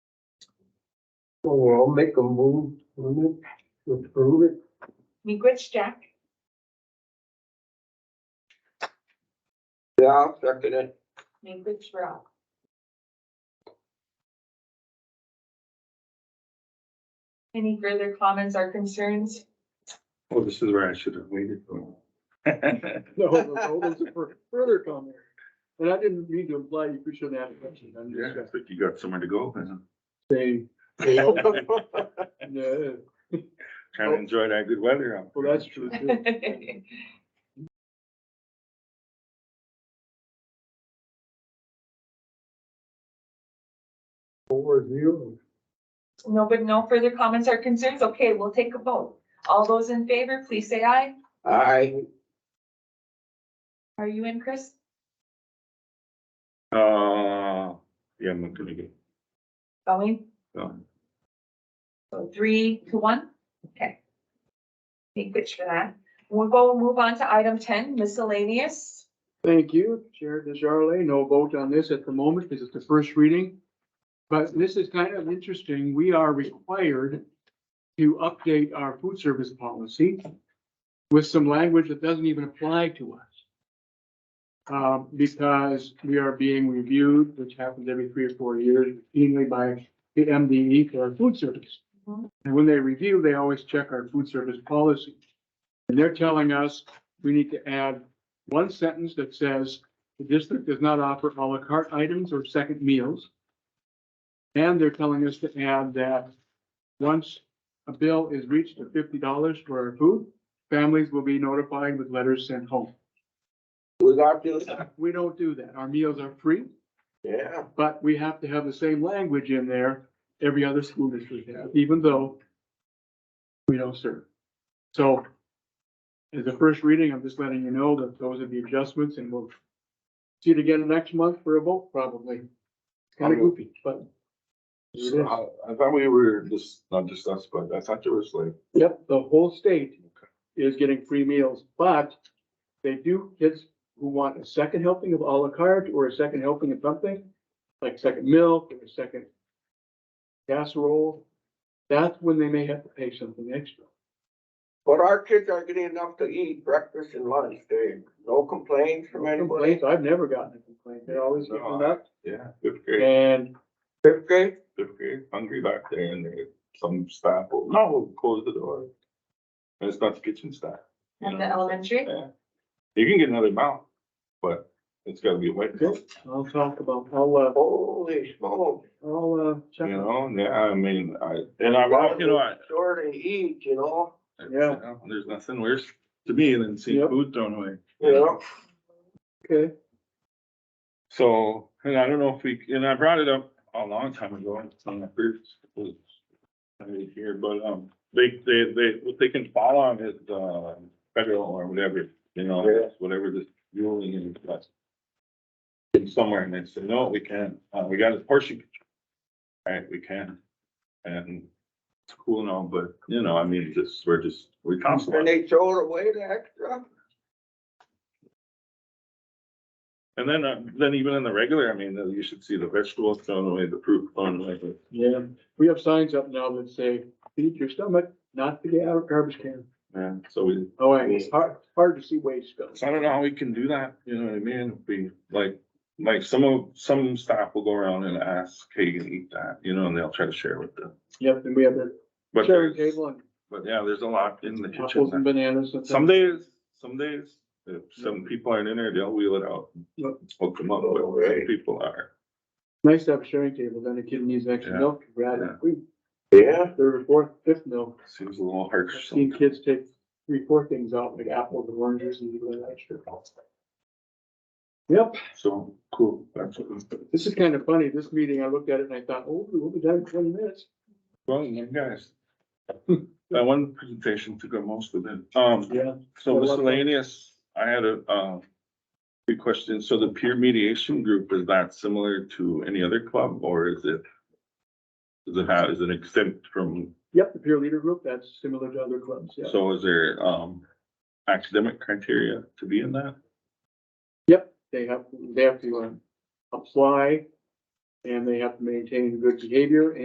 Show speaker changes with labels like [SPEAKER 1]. [SPEAKER 1] Well, I'll make a move on it, to approve it.
[SPEAKER 2] Migritch Jack,
[SPEAKER 1] Yeah, I'll second it.
[SPEAKER 2] Migritch Rock. Any further comments or concerns?
[SPEAKER 3] Well, Oh, this is where I should have waited for.
[SPEAKER 4] No, no, no, those are for further comment. And I didn't mean to imply you shouldn't ask questions. I'm just
[SPEAKER 3] Yeah, but you got somewhere to go, and
[SPEAKER 4] saying,
[SPEAKER 1] I'll
[SPEAKER 4] no,
[SPEAKER 3] trying to enjoy that good weather. out
[SPEAKER 4] well,
[SPEAKER 3] there.
[SPEAKER 4] that's true too.
[SPEAKER 1] Overview.
[SPEAKER 2] No, but no further comments or concerns? Okay, we'll take a vote. All those in favor, please say aye.
[SPEAKER 1] Aye.
[SPEAKER 2] Are you in, Chris?
[SPEAKER 3] Uh, yeah, I'm not gonna get
[SPEAKER 2] Going?
[SPEAKER 3] going.
[SPEAKER 2] So three to one? Okay. Thank you for that. We'll go move on to item ten, miscellaneous.
[SPEAKER 4] Thank you, Chair DeJarle. No vote on this at the moment because it's the first reading. But this is kind of interesting. We are required to update our food service policy with some language that doesn't even apply to us. Uh, because we are being reviewed, which happens every three or four years, routinely by the MDE for our food service.
[SPEAKER 2] Mhm.
[SPEAKER 4] And when they review, they always check our food service policy. And they're telling us we need to add one sentence that says, the district does not offer à la carte items or second meals. And they're telling us to add that once a bill is reached of fifty dollars for our food, families will be notified with letters sent home.
[SPEAKER 1] We got this.
[SPEAKER 4] We don't do that. Our meals are free,
[SPEAKER 1] Yeah.
[SPEAKER 4] but we have to have the same language in there every other school district has, even though we don't serve. So as a first reading, I'm just letting you know that those are the adjustments and we'll see it again next month for a vote probably. Kind of goofy, but.
[SPEAKER 3] So, I I thought we were just, not just us, but I thought there was like,
[SPEAKER 4] Yep, the whole state is getting free meals, but they do, kids who want a second helping of à la carte or a second helping of something, like second milk or a second casserole, that's when they may have to pay something extra.
[SPEAKER 1] But our kids are getting enough to eat breakfast and lunch. They, no complaints from anybody.
[SPEAKER 4] Complaints, I've never gotten a complaint. They're always getting up
[SPEAKER 3] yeah, fifth grade,
[SPEAKER 4] and
[SPEAKER 1] Fifth grade?
[SPEAKER 3] fifth grade, hungry back there, and there, some staff, will no, close the door. And it's not the kitchen staff. you
[SPEAKER 2] At the
[SPEAKER 3] know?
[SPEAKER 2] elementary?
[SPEAKER 3] Yeah. You can get another amount, but it's gotta be a white bill,
[SPEAKER 4] I'll talk about, I'll,
[SPEAKER 1] Holy smoke.
[SPEAKER 4] uh, I'll, uh,
[SPEAKER 3] you
[SPEAKER 4] check. it.
[SPEAKER 3] know, yeah, I mean, I, and I, you know, I.
[SPEAKER 1] Sure to eat, you know?
[SPEAKER 4] Yeah.
[SPEAKER 3] you know, There's nothing worse to me than seeing
[SPEAKER 4] Yep.
[SPEAKER 3] food thrown away.
[SPEAKER 1] Yeah.
[SPEAKER 4] Okay,
[SPEAKER 3] So, and I don't know if we, and I brought it up a long time ago, it's on the first. was already Here, but, um, they, they, they, what they can fall on is, uh, federal or whatever, you know,
[SPEAKER 1] Yeah.
[SPEAKER 3] whatever this ruling is. but It's somewhere and they say, no, we can't, uh, we got a portion. control." Right, we can. And it's cool and all, but, you know, I mean, just, we're just, we're
[SPEAKER 1] And
[SPEAKER 3] constantly.
[SPEAKER 1] they throw it away the extra?
[SPEAKER 3] And then, uh, then even in the regular, I mean, you should see the vegetables thrown away, the fruit thrown away, but
[SPEAKER 4] yeah, we have signs up now that say, feed your stomach, not the garbage can.
[SPEAKER 3] Yeah, so we,
[SPEAKER 4] Oh, and it's hard, hard to see waste go.
[SPEAKER 3] so I don't know how we can do that, you know what I mean, we, like, like some of, some staff will go around and ask, hey, you can eat that, you know, and they'll try to share with them.
[SPEAKER 4] Yep, and we have the
[SPEAKER 3] But
[SPEAKER 4] sharing
[SPEAKER 3] there's-
[SPEAKER 4] table and
[SPEAKER 3] But yeah, there's a lot in the
[SPEAKER 4] apples and
[SPEAKER 3] kitchen,
[SPEAKER 4] bananas and.
[SPEAKER 3] some days, some days, if some people aren't in there, they'll wheel it out.
[SPEAKER 4] Yep.
[SPEAKER 3] and Hook them up, but some
[SPEAKER 1] Right.
[SPEAKER 3] people are,
[SPEAKER 4] Nice to have a sharing table, then a kid needs extra
[SPEAKER 3] Yeah,
[SPEAKER 4] milk, rather,
[SPEAKER 3] yeah.
[SPEAKER 4] we,
[SPEAKER 1] Yeah.
[SPEAKER 4] third or fourth, fifth milk.
[SPEAKER 3] seems a little
[SPEAKER 4] I've
[SPEAKER 3] harsh.
[SPEAKER 4] Seen
[SPEAKER 3] sometimes.
[SPEAKER 4] kids take three, four things out, like apples and oranges and you let extra. Yep,
[SPEAKER 3] So, cool, that's what was,
[SPEAKER 4] this is kind of funny, this meeting, I looked at it and I thought, oh, we'll be done in twenty minutes.
[SPEAKER 3] well, you guys. That one presentation took up most of it, um.
[SPEAKER 4] Yeah.
[SPEAKER 3] So
[SPEAKER 4] I love that.
[SPEAKER 3] miscellaneous, I had a, uh, good question. So the peer mediation group, is that similar to any other club or is it? Does it have, is it exempt from,
[SPEAKER 4] Yep, the peer leader group, that's similar to other clubs, yeah.
[SPEAKER 3] so is there, um, academic criteria to be in that?
[SPEAKER 4] They uh, have, they have to um, apply and they have to maintain good behavior